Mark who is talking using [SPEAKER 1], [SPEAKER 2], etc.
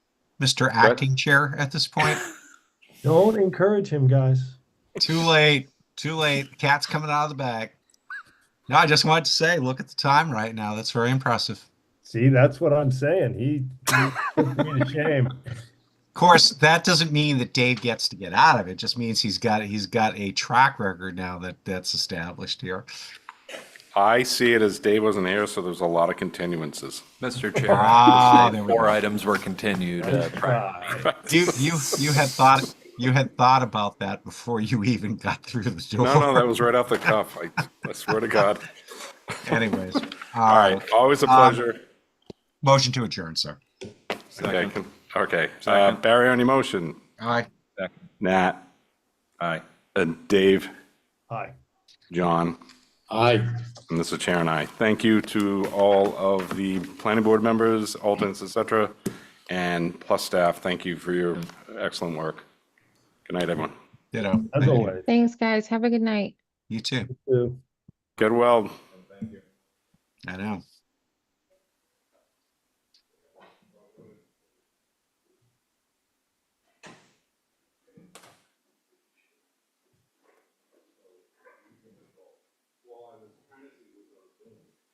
[SPEAKER 1] Mr. Acting Chair at this point.
[SPEAKER 2] Don't encourage him, guys.
[SPEAKER 1] Too late. Too late. The cat's coming out of the bag. No, I just wanted to say, look at the time right now. That's very impressive.
[SPEAKER 2] See, that's what I'm saying. He, he put me to shame.
[SPEAKER 1] Of course, that doesn't mean that Dave gets to get out of it. it just means he's got he's got a track record now that that's established here.
[SPEAKER 3] I see it as Dave wasn't here, so there's a lot of continuances.
[SPEAKER 4] Mr. Chair,
[SPEAKER 1] Ah,
[SPEAKER 4] I would say
[SPEAKER 1] there we
[SPEAKER 4] four
[SPEAKER 1] go.
[SPEAKER 4] items were continued. uh, prior-
[SPEAKER 2] Right.
[SPEAKER 1] You you you had thought you had thought about that before you even got through the door.
[SPEAKER 3] No, no, that was right off the cuff. I, I swear to God.
[SPEAKER 1] Anyways, uh,
[SPEAKER 3] All right, Um, always a pleasure.
[SPEAKER 1] Motion to adjourn, sir.
[SPEAKER 3] Okay,
[SPEAKER 5] Second.
[SPEAKER 3] can- Okay, uh,
[SPEAKER 5] Second.
[SPEAKER 3] Barry on your motion,
[SPEAKER 1] All right.
[SPEAKER 5] Second.
[SPEAKER 3] Nat,
[SPEAKER 5] Aye.
[SPEAKER 3] and Dave,
[SPEAKER 2] Hi.
[SPEAKER 3] John. Aye. And this is Chair and I. Thank you to all of the planning board members, alternates, et cetera, and plus staff. Thank you for your excellent work. Good night, everyone.
[SPEAKER 1] Ditto.
[SPEAKER 2] As always.
[SPEAKER 6] Thanks, guys. Have a good night.
[SPEAKER 1] You too.
[SPEAKER 2] too.
[SPEAKER 3] Get well.
[SPEAKER 1] I know.